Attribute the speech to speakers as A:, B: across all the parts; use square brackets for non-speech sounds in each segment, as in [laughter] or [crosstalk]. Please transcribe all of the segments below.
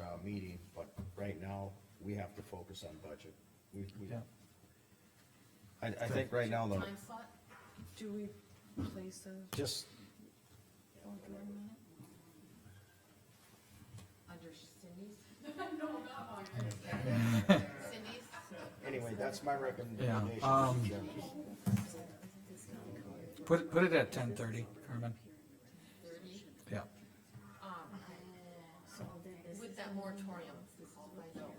A: uh, we have to focus on budget. We, we,
B: Yeah.
A: I, I think right now, though,
C: Time slot, do we place a
A: just,
C: board meeting minute? Under Cindy's? No, not mine. Cindy's?
A: anyway, that's my
B: Yeah,
A: recommendation.
B: um,
A: Mr. Chairman.
B: Put, put it at ten thirty, Carmen,
C: Thirty?
B: yeah.
C: With that moratorium, I'll find out.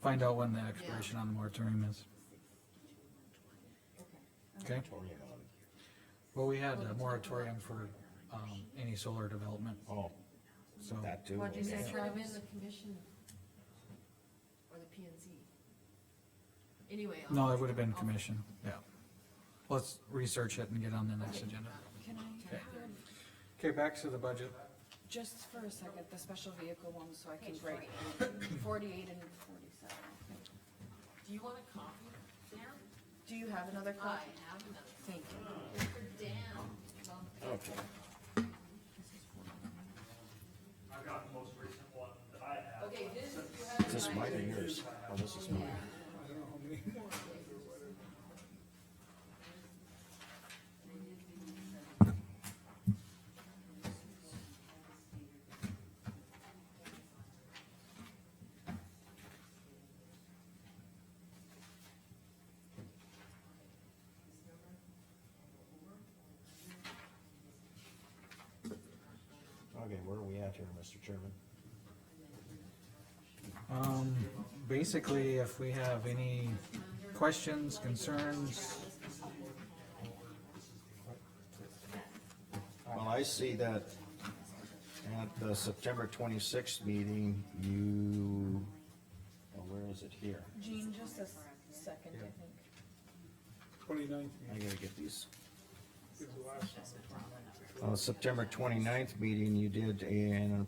B: Find out when the expiration on the moratorium is, okay?
A: Moratorium on it.
B: Well, we had a moratorium for, um, any solar development,
A: Oh,
B: so,
A: that too.
C: Why'd you say
A: okay.
C: turn them in the commission? Or the P and Z? Anyway. I'll-
B: no, it would have been
C: I'll-
B: commission, yeah. Let's research it and get on the next agenda.
D: Can I,
B: Okay. Okay, back to the budget.
D: just for a second, the special vehicle one, so I can
C: [coughs]
D: break forty-eight and forty-seven.
C: Do you want a copy? Dan?
D: Do you have another
C: I
D: copy?
C: have another.
D: Thank you.
C: For Dan.
A: Okay,
E: I've got the most recent one that I have.
C: Okay, this, you have.
A: is this mine or yours? Oh, this is mine. Okay, where are we at here, Mr. Chairman?
B: Um, basically, if we have any questions, concerns,
A: Well, I see that at the September twenty-sixth meeting, you, oh, where is it here?
D: Jean, just a s- second, I think.
F: Twenty-ninth
A: I gotta get
F: is
A: these.
F: the last one.
A: Uh, September twenty-ninth meeting, you did uh, an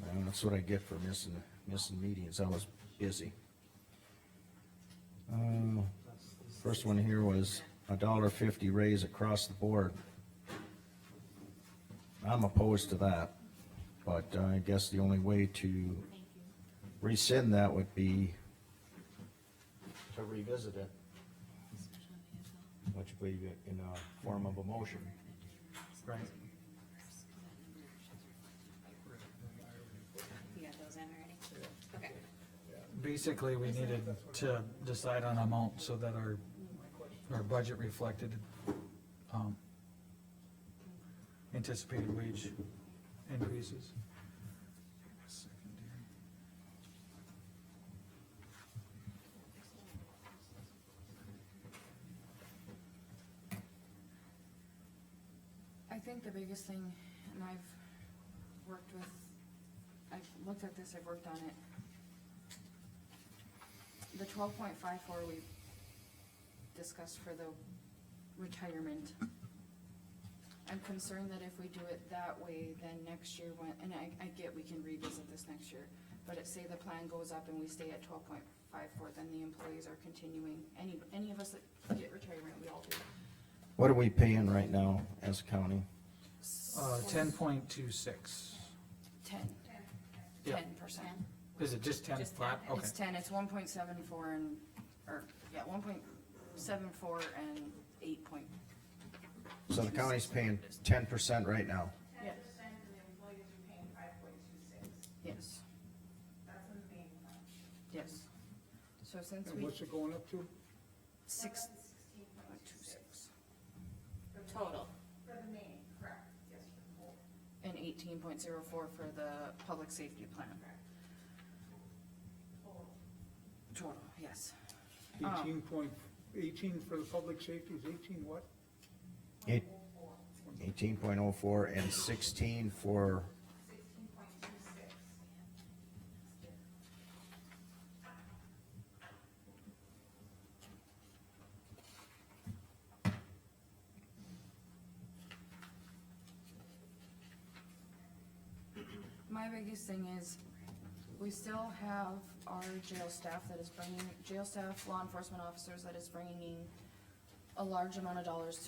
A: Well, that's what I get for missing, missing meetings, I was busy. Uh, First one here was a dollar fifty raise across the board. I'm opposed to that, but I guess the only way to rescind that would be to revisit it, which would be in a form of a motion.
B: right,
G: You got those in already? Okay.
B: basically, we needed to decide on amount so that our, our budget reflected, um, anticipated wage increases.
D: I think the biggest thing, and I've worked with, I've looked at this, I've worked on it. The twelve point five four we discussed for the retirement. I'm concerned that if we do it that way, then next year when, and I, I get we can revisit this next year. But it say the plan goes up and we stay at twelve point five four, then the employees are continuing, any, any of us that get retirement, we all do.
A: What are we paying right now as a county?
B: Uh, ten point two six.
D: Ten.
B: Yeah.
D: Ten percent.
B: Is it just ten
G: Just
B: flat? Okay,
D: It's ten, it's one point seven four and, or, yeah, one point seven four and eight point,
A: So the county's paying ten percent right now.
D: yes,
H: percent and the employees are paying five point two six.
D: yes,
H: That's insane.
D: yes. So since
F: And
D: we,
F: what's it going up to?
D: six,
H: Sixteen
D: uh,
H: point
D: two, six,
G: Total.
H: for the main, correct, yes, for the whole.
D: and eighteen point zero four for the public safety plan. Total, yes, Ah.
F: Eighteen point, eighteen for the public safety is eighteen what?
A: Eight, eighteen point oh four and sixteen for,
D: my biggest thing is, we still have our jail staff that is bringing, jail staff, law enforcement officers that is bringing a large amount of dollars to